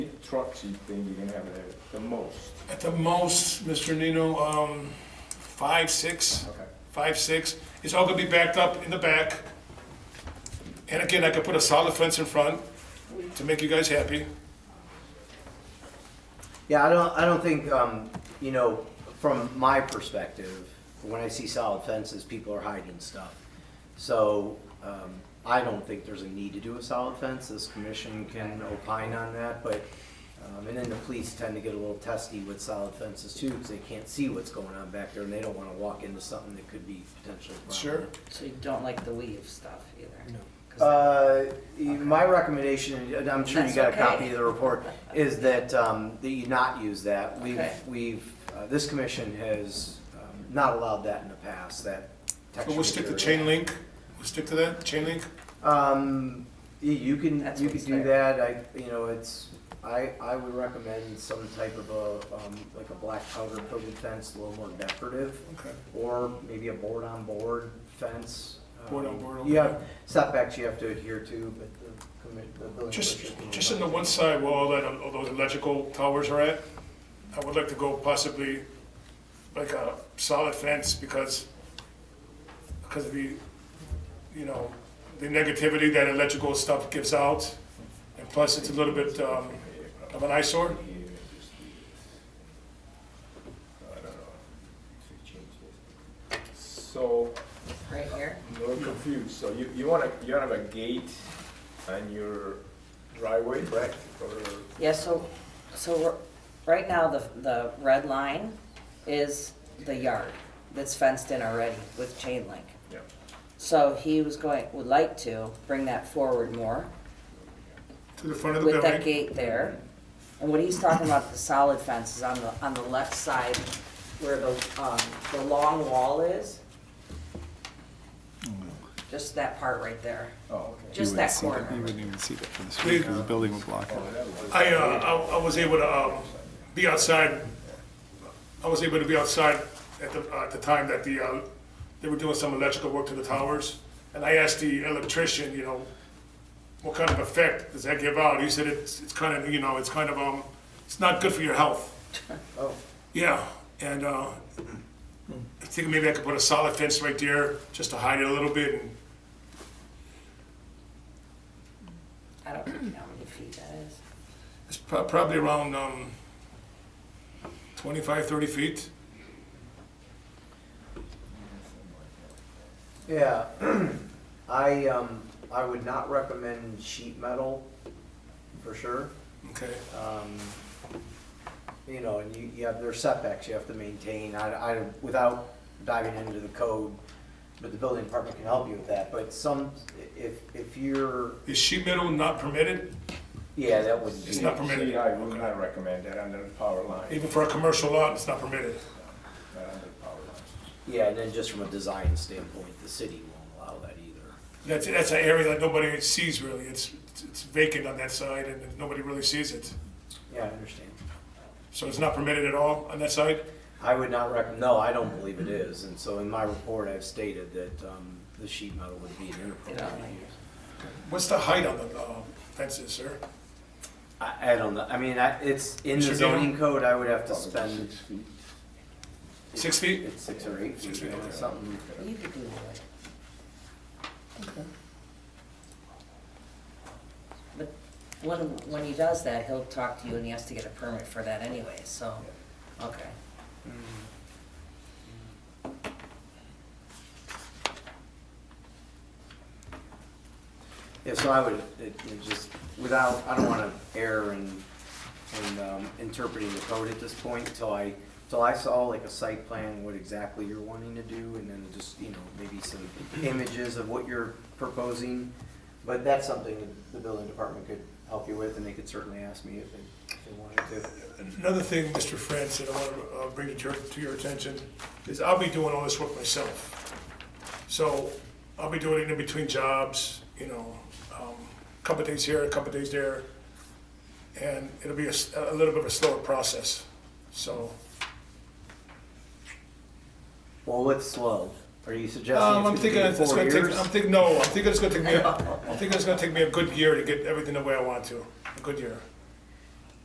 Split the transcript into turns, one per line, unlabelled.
trucks you think you're gonna have there the most?
At the most, Mr. Nino, um, five, six,
Okay.
five, six. It's all gonna be backed up in the back. And again, I could put a solid fence in front to make you guys happy.
Yeah, I don't, I don't think, um, you know, from my perspective, when I see solid fences, people are hiding stuff. So, um, I don't think there's a need to do a solid fence, this commission can opine on that, but, um, and then the police tend to get a little testy with solid fences too, because they can't see what's going on back there, and they don't wanna walk into something that could be potentially a problem.
Sure.
So you don't like the weave stuff either? No. 'Cause
Uh, my recommendation, and I'm sure you got
That's
a copy
okay.
of the report, is that, um, that you not use that. We've,
Okay.
we've, uh, this commission has, um, not allowed that in the past, that
But
textual.
we'll stick to
barrier.
chain link. We'll stick to that, chain link.
Um, you, you can,
That's
you
what
could
it's
do
there.
that, I, you know, it's, I, I would recommend some type of a, um, like a black powder coated fence, a little more decorative.
Okay.
Or maybe a board-on-board fence.
Board-on-board,
Um,
okay.
You have setbacks you have to adhere to, but the commit, the building.
Just,
commission can-
just in the one side where all that, all those electrical towers are at, I would like to go possibly like a solid fence because, because of the, you know, the negativity that electrical stuff gives out. And plus it's a little bit, um, of an eyesore.
So,
Right here?
I'm a little confused, so you, you wanna, you have a gate on your driveway, correct? Or
Yeah, so, so we're- right now, the, the red line is the yard that's fenced in already with chain link.
Yeah.
So he was going, would like to bring that forward more
To the front of the
with that
building.
gate there. And what he's talking about, the solid fence is on the, on the left side where the, um, the long wall is. Just that part right there,
Mm. Oh, okay.
just that corner.
You wouldn't even see that from the street, 'cause the building would block it.
I, uh, I, I was able to, um, be outside. I was able to be outside at the, uh, at the time that the, uh, they were doing some electrical work to the towers. And I asked the electrician, you know, what kind of effect does that give out? He said it's, it's kind of, you know, it's kind of, um, it's not good for your health.
Oh.
Yeah, and, uh, I think maybe I could put a solid fence right there just to hide it a little bit and
I don't know how many feet that is.
It's pro- probably around um, 25, 30 feet.
Yeah, I, um, I would not recommend sheet metal, for sure.
Okay.
Um, You know, and you, you have, there's setbacks you have to maintain, I, I, without diving into the code, but the building department can help you with that, but some, if, if you're,
Is sheet metal not permitted,
yeah, that wouldn't be.
It's not permitted.
See, I would not recommend that under the power line,
even for a commercial lot? It's not permitted.
not under the power line.
Yeah, and then just from a design standpoint, the city won't allow that either.
That's that's an area that nobody sees really. It's it's vacant on that side, and nobody really sees it.
Yeah, I understand.
So it's not permitted at all on that side.
I would not recommend, no, I don't believe it is, and so in my report, I've stated that, um, the sheet metal would be an inappropriate use.
What's the height on the uh, fences, sir?
I, I don't know, I mean, I, it's in the
Mr. Dino?
zoning code, I would have to spend
Six feet.
It's six or eight,
Six
feet,
feet,
yeah,
okay.
something.
You could do wood. But when, when he does that, he'll talk to you and he has to get a permit for that anyway, so, okay.
Yeah, so I would, it, it just, without, I don't wanna err in, in, um, interpreting the code at this point until I, till I saw like a site plan, what exactly you're wanting to do, and then just, you know, maybe some images of what you're proposing. But that's something that the building department could help you with, and they could certainly ask me if they, if they wanted to.
Another thing, Mr. France, that I want to uh, bring to your, to your attention is I'll be doing all this work myself. So I'll be doing it in between jobs, you know, um, a couple days here, a couple days there. And it'll be a, s- a little bit of a slower process. So,
Well, what's slow? Are you
um,
suggesting
I'm
it's
thinking
gonna
it's
be four
gonna take,
years?
I'm thinking, no, I'm thinking it's gonna take me, a- I'm thinking it's gonna take me a good year to get everything the way I want to, a good year.